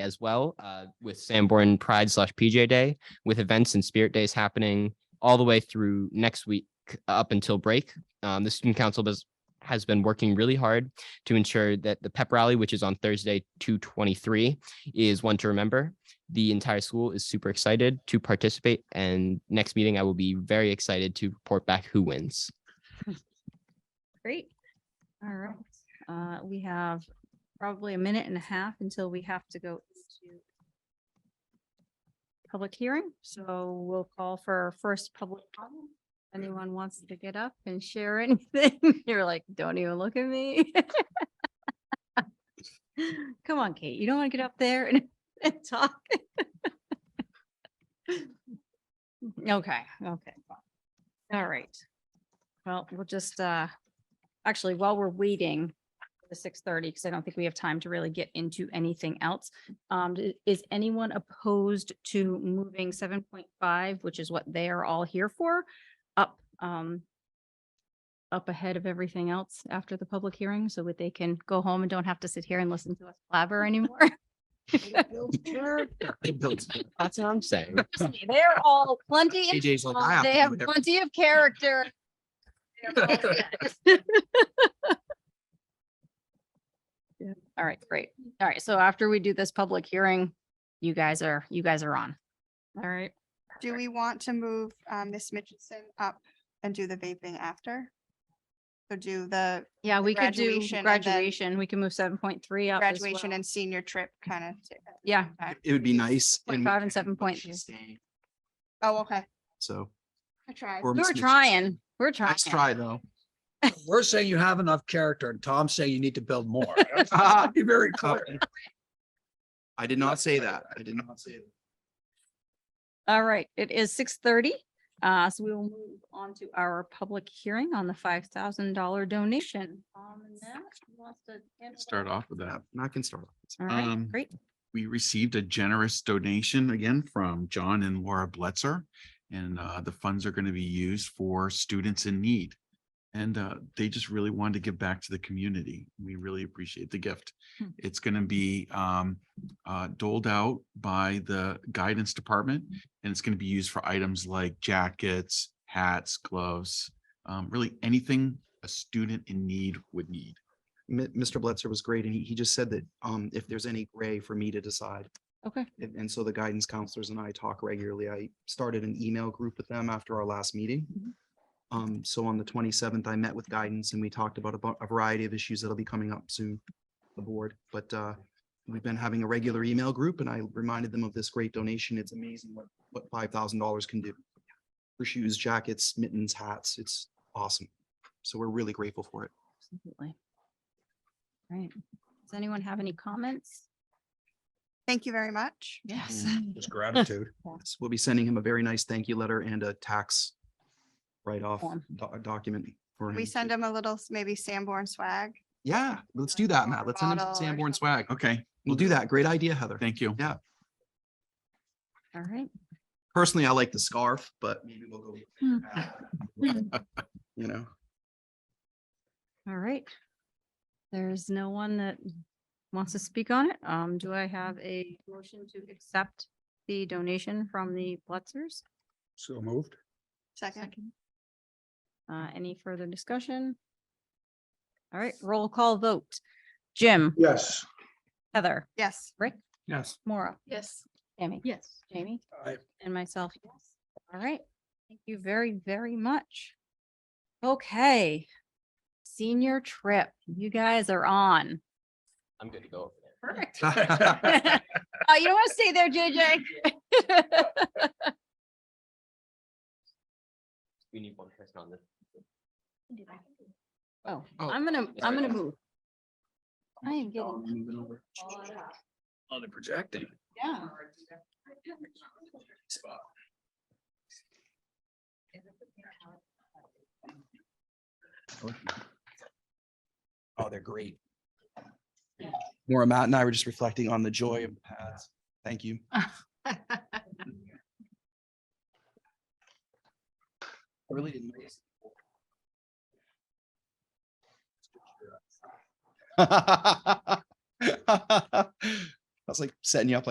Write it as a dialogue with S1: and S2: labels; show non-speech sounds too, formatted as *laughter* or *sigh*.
S1: as well uh, with Sanborn Pride slash PJ Day, with events and spirit days happening all the way through next week up until break. Um, the student council does, has been working really hard to ensure that the pep rally, which is on Thursday, 223, is one to remember. The entire school is super excited to participate. And next meeting, I will be very excited to report back who wins.
S2: Great. All right. Uh, We have probably a minute and a half until we have to go into public hearing. So we'll call for our first public comment. Anyone wants to get up and share *laughs* anything? You're like, don't even look at me. *laughs* Come on, Kate. You don't want to get up there and and talk. *laughs* Okay, okay. All right. Well, we'll just, uh, actually, while we're waiting for the six thirty, because I don't think we have time to really get into anything else. Um, d- is anyone opposed to moving seven point five, which is what they are all here for, up, um, up ahead of everything else after the public hearing, so that they can go home and don't have to sit here and listen to us blabber anymore?
S1: That's what I'm saying.
S2: Trust me, They're all plenty. in-
S3: AJ's like, I
S2: They have
S3: have to do
S2: plenty of *laughs* character. They're all *laughs* set. Yeah. All right, great. All right, so after we do this public hearing, you guys are, you guys are on. All right.
S4: Do we want to move um, Miss Mitchison up and do the vaping after? So do the
S2: Yeah, we could do
S4: graduation and then-
S2: graduation. We can move seven point three up as
S4: graduation
S2: well.
S4: and senior trip kind of?
S2: Yeah,
S3: everything. It would be nice.
S2: Point
S3: and
S2: five and seven
S3: but
S2: point
S3: she's staying,
S4: Oh, okay.
S3: So.
S4: I tried.
S3: or
S2: we
S3: Miss
S2: were
S3: Mitch-
S2: trying, we we're trying.
S3: Nice try, though.
S5: We're saying you have enough character and Tom's saying you need to build more. *laughs* Be very clear.
S3: I did not say that. I did not say that.
S2: All right, it is six thirty. Uh, so we will move on to our public hearing on the five thousand dollar donation. Um, and Matt, who wants to handle
S6: start
S2: that?
S6: off with that.
S3: No, I can start.
S2: All right,
S6: um,
S2: great.
S6: We received a generous donation again from John and Laura Bletzer. And uh, the funds are going to be used for students in need. And uh, they just really wanted to give back to the community. We really appreciate the gift.
S2: Hmm.
S6: It's going to be um, uh, doled out by the guidance department. And it's going to be used for items like jackets, hats, gloves, um, really anything a student in need would need.
S3: Mi- Mr. Bletzer was great and he, he just said that, um, if there's any gray for me to decide.
S2: Okay,
S3: And, and so the guidance counselors and I talk regularly. I started an email group with them after our last meeting.
S2: Mhm.
S3: Um, so on the twenty-seventh, I met with guidance and we talked about a, bu- a variety of issues that'll be coming up soon, the board, but, uh, we've been having a regular email group and I reminded them of this great donation. It's amazing what, what five thousand dollars can do. For shoes, jackets, mittens, hats. It's awesome. So we're really grateful for it.
S2: absolutely. Right. Does anyone have any comments?
S4: Thank you very much.
S2: Yes.
S3: Mm.
S4: *laughs*
S5: Just gratitude.
S3: Yes, We'll be sending him a very nice thank you letter and a tax write-off
S2: Form.
S3: doc- document. for
S4: We
S3: him.
S4: send him a little, s- maybe Sanborn swag.
S3: Yeah, let's do that, Matt.
S4: water
S3: Let's send him
S4: bottle or
S3: some Sanborn
S4: something.
S3: swag.
S6: Okay,
S3: We'll do that. Great idea, Heather.
S6: thank you.
S2: All right.
S3: Personally, I like the scarf, but maybe we'll go.
S2: Hmm.
S3: *laughs* You know,
S2: All right. There's no one that wants to speak on it. Um, do I have a motion to accept the donation from the Blitzers?
S5: So moved.
S4: Second,
S2: Uh, any further discussion? All right, roll call vote. Jim,
S5: Yes.
S2: Heather,
S4: yes.
S5: Yes.
S2: Maura,
S4: Yes.
S2: Tammy. Yes. Jamie and myself. Yes. All right. Thank you very, very much. Okay. Senior trip, you guys are on.
S1: I'm good to go over there.
S3: *laughs*
S2: *laughs* Perfect.
S4: *laughs*
S2: Uh, you don't want to stay there, JJ.
S1: We need one person on this.
S2: *laughs* Oh,
S3: Oh,
S2: I'm gonna, I'm gonna
S1: right.
S2: move. I am getting.
S5: On the projecting.
S2: Yeah.
S3: oh, they're great. Maura, Matt and I were just reflecting on the joy of the pads. Thank you. I really didn't. notice. *laughs* was like setting you up like